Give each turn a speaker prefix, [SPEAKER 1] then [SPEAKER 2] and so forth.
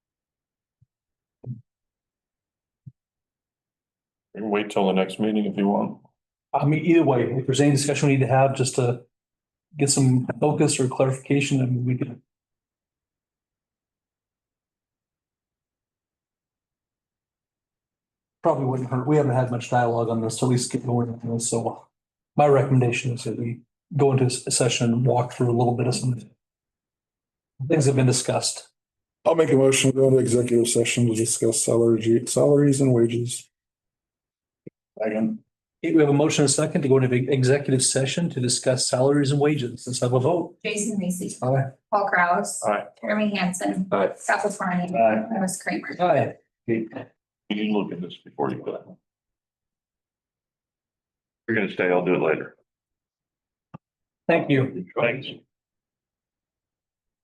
[SPEAKER 1] can wait till the next meeting if you want.
[SPEAKER 2] I mean, either way, if there's any discussion we need to have just to get some focus or clarification, then we can. Probably wouldn't hurt. We haven't had much dialogue on this, so at least get going on this. So uh, my recommendation is that we go into a session, and walk through a little bit of some things that have been discussed.
[SPEAKER 3] I'll make a motion to go into executive session to discuss salary, salaries and wages.
[SPEAKER 1] Second.
[SPEAKER 2] Okay, We have a motion and a second to go into executive session to discuss salaries and wages. Let's have a vote.
[SPEAKER 4] Jason Lacy.
[SPEAKER 2] Aye.
[SPEAKER 4] Paul Kraus.
[SPEAKER 1] Aye.
[SPEAKER 4] Jeremy Hanson.
[SPEAKER 1] Aye.
[SPEAKER 4] Scott Flannery.
[SPEAKER 1] Aye.
[SPEAKER 4] Wes Kramer.
[SPEAKER 2] Aye.
[SPEAKER 1] You can look at this before you go. You're gonna stay, I'll do it later.
[SPEAKER 2] Thank you.
[SPEAKER 1] Thanks.